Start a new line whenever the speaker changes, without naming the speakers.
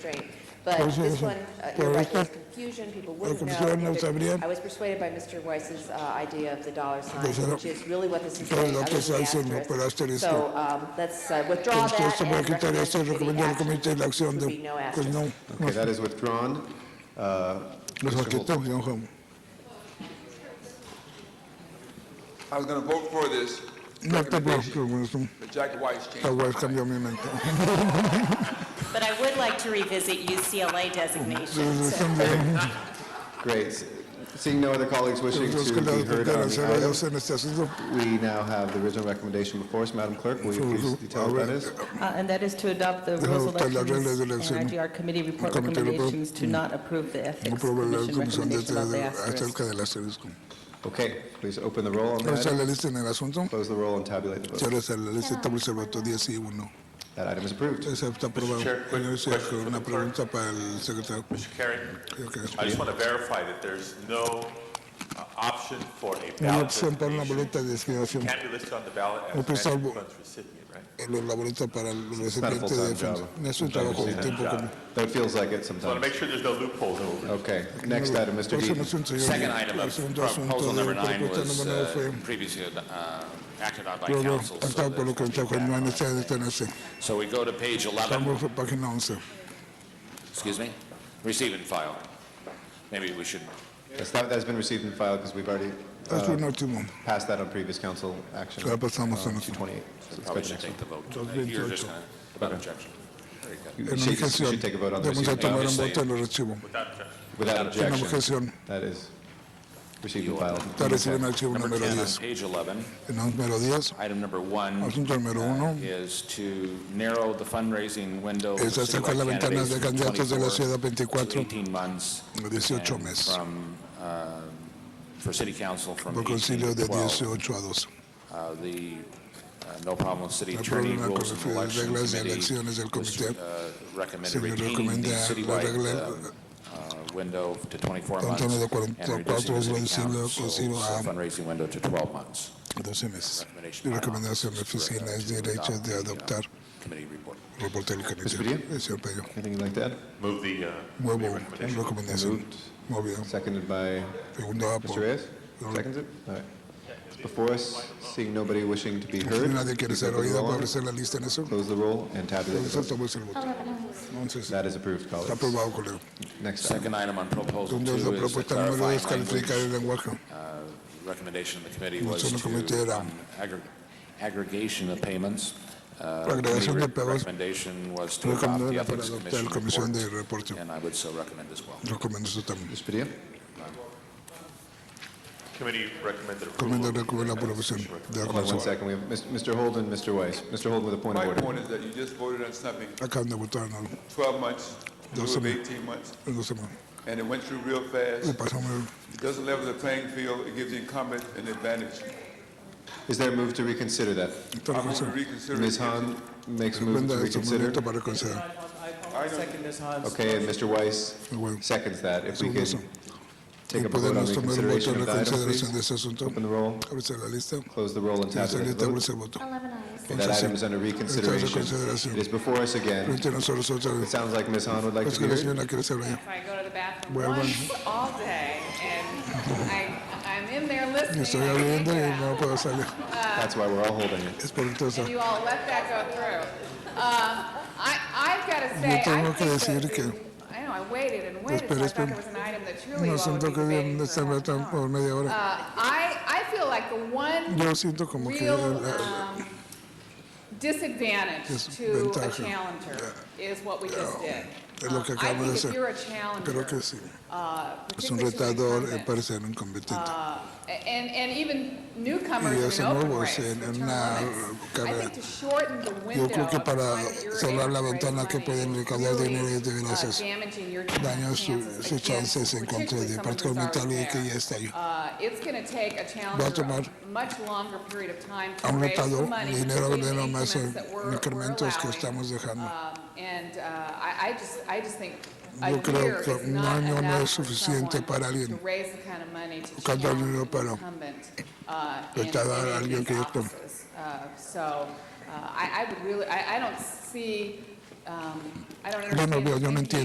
straight. But
Pues
this
eso,
one, uh, you're
pues
right, there was
esta-
confusion, people wouldn't know.
confusión, no
There-
sabrían.
I was persuaded by Mr. Weiss's uh, idea of the dollar sign,
Pues era-
which is really what this is
era
saying,
lo
other
que
than the
está diciendo, pero
asterisk.
asterisco.
So um, let's uh, withdraw
Entonces,
that
esto para
and
quitar
recommend
esto,
the committee
recomendar al
action.
comité la acción
Would be
de,
no
pues
action.
no,
Okay, that is withdrawn. Uh,
nos
Mr. Holder.
quitamos, don Juan.
I was going to vote for this
No te preocupes,
recommendation,
bueno, es un-
but Jack White's changed.
la web cambió mi mente.
But I would like to revisit UCLA designation.
Entonces,
so-
también,
Great. Seeing no other colleagues wishing
los
to
que
be
la
heard on
intentan
the
hacer ellos
item,
en este asunto,
we now have the original recommendation before us. Madam Clerk, will you please detail what that is?
Uh, And that is to adopt the
Dejar
rules
adoptar las reglas de
elections
elección.
and IGR committee report
Comité de-
recommendations to not approve the
no
ethics
probé la
commission
comisión de
recommendation about the
de-
asterisk.
acerca del asterisco.
Okay, please open the roll on
Vamos
that.
a la lista en el asunto.
Close the roll and tabulate the vote.
Cierras la lista, estamos el voto 10 y 1.
That item is approved.
Entonces, está aprobado.
Chair, quick
Señor Sergio,
question for
Una
the clerk.
pregunta para el secretario.
Mr. Carey,
Creo que es-
I just want to verify that there's no uh, option for a
Una
ballot
opción para una
designation.
boleta de discriminación.
Can't be listed on the ballot
No, pues,
as a
salvo-
funds recipient, right?
eh, Los laboritos para los recipientes
full-time
de defensa.
job.
No es un trabajo de tiempo
Job.
completo.
Though it feels like it
So I want to
sometimes.
make sure there's no loophole. no-
Okay, next item, Mr.
Próximo
Deaton.
Pues, asunto, señor.
Second item
El
of
segundo asunto
proposal
de
number nine
propuesta
was
número
uh,
nueve
previously uh, acted on by
fue luego
council. so
tratado por lo que
there's
está
nothing
Juan, no hay
back on
necesidad de
that.
detenerse.
So we go to page 11,
Vamos a página
Uh,
11.
excuse me, receive and file. Maybe we should,
That's not- That's been received and filed because we've already uh,
Es un último.
passed that on previous council action.
Ya pasamos
uh,
a nuestro.
228. So it's
probably
been
should
next
take the vote.
Those
Uh,
been
You're just
told.
going to, without objection.
You
En
should- you
objeción,
should take a vote on the
vamos a
receipt and
tomar un
file.
objeción.
voto en el archivo.
Without
En
objection.
objeción,
That is received and filed.
está recibiendo el
Okay.
archivo
Number
número
10 on
10.
page 11,
En el número 10,
item number one uh,
asunto número 1,
is to narrow the fundraising window for
Es acercar la
citywide
ventana
candidates
de
from
candidatos de la
24
ciudad 24
to 18 months.
a 18
and
meses.
From, uh, for city council from
por
18
concilio
to
de
12.
18 a 12.
Uh, The, uh, no problem with city
No
attorney
problema con
rules
las
and elections committee.
reglas de elecciones del
was,
comité.
uh,
Se
Recommended
le
retaining the
recomienda la regla-
citywide um, uh, window to 24 months.
Tanto de
and
44
reducing the city
reducirlo,
council
reducirlo a-
Fundraising window to 12 months.
12 meses.
Recommendation
Mi
by
recomendación de
office is for, uh,
oficina es
to
derecha
adopt
de
the, uh,
adoptar
Committee report.
el reporte del comité.
Pedrillo?
El señor Pedro.
Anything you'd like to add?
Move the uh, committee
Muevo
recommendation.
la recomendación.
Moved.
Movido.
Seconded by
Segundo
Mr.
apo.
Reyes? Seconds it? All right. It's before us, seeing nobody wishing to be
Si
heard.
nadie quiere
please
ser
open the
oído,
roll.
puede ofrecer la lista en eso.
Close the roll and tabulate the
Entonces,
vote.
tomamos el voto. Entonces,
That is approved,
está
colleagues.
aprobado, colega.
Next item.
Second item on proposal two
Entonces, la
is the
propuesta número 2 es
clarifying
calificar
language
el lenguaje.
recommendation of the committee
No
was
solo comité
to
era-
um, aggr- aggregation of payments. Uh,
La agregación
committee
de pagos
Recommendation was to adopt
recomendada
the
para
ethics
adoptar el comisión
commission
de
report,
reporte.
and I would so recommend as well.
Recomiendo eso también.
Mr. Padilla?
Committee recommended approval.
Recomiendo
of the
recomendar la
recommendation.
aprobación de la
Hold on one
comisión.
second. We have Mis- Mr. Holden, Mr. Weiss. Mr. Holden with a point of
My
order.
point is that you just voted on something
Acaban de votar ¿no?
12 months, in lieu
Doesn't-
of 18 months,
en dos semanas.
and it went through real
Le
fast.
pasamos
It doesn't level the playing field. It gives the incumbent an advantage.
Is there a move to reconsider that?
el- toda la
I'm going to
comisión.
reconsider.
Ms.
it.
Han makes a move to
Recomienda este
reconsider.
momento para considerar.
Okay, and Mr. Weiss
Well,
seconds that. If we
segundo
could
eso.
take
Y
up a vote on
podemos
the
tomar un voto
consideration
en
of the
la
item,
consideración de este
please.
asunto.
Open the roll,
Abre la lista.
close the roll, and
La
tabulate the
secretaria
vote.
abre el voto.
Okay, That item is under reconsideration.
consideración.
It is before us again.
Frente a nosotros otra
It
vez.
sounds like Ms. Han would like
Es
to
que
be
la
heard.
señora quiere ser allá.
If I go to the bathroom
Bueno.
once all day, and I, I'm in there listening.
Estoy
I can't
abriendo y
get out.
no puedo salir.
That's why we're all holding it.
Es por entonces.
You all let that go through. Um, I, I've got to say, I
tengo que
think
decir
that
que-
the- I know, I waited and waited, so
espera,
I thought
espera.
there was an item that truly you
No
all would be
siento que deben
debating for
estar
half an
matando
hour.
por media
Uh,
hora.
I, I feel like the one
Yo siento como que
real
la-
um, disadvantage to a
Desventaja.
challenger is what we just did.
es lo que
Um,
acabo de
I think
hacer.
if you're a
Creo que
challenger,
sí.
uh,
Es un
particularly to an
retador, eh,
incumbent,
parece un competente.
uh, and, and even
Y
newcomers in
eso
an open
nuevo,
race,
sí, en
the term
una
limits. I
carrera.
think to shorten the window
Yo creo que
of
para
time that you're
cerrar
able
la
to raise
ventana que
money
pueden
is
recaudar
really,
dinero es de
uh,
veras
damaging your
daña su-
chances
sus
against
chances en contra de
particularly someone who's
particularmente
already
alguien que
there.
ya está ahí.
Uh, It's going to take a challenger
tomar
a much longer period of time to
a un
raise the
retador
money,
dinero
including
dinero
the
más
increments
eh,
that we're- we're
incrementos que
allowing.
estamos dejando.
Um, And uh, I, I just, I just think a
Yo creo
year
que
is
un
not
año no
enough
es
for
suficiente
someone
para alguien
to raise the kind of money to
Cada
challenge
dinero
an
para
incumbent, uh, in-
recaudar
in
a alguien
these
que yo tengo.
offices. Uh, So uh, I, I would really, I, I don't see uh, um, I don't
Yo no
understand.
veo, yo no
maybe-
entiendo.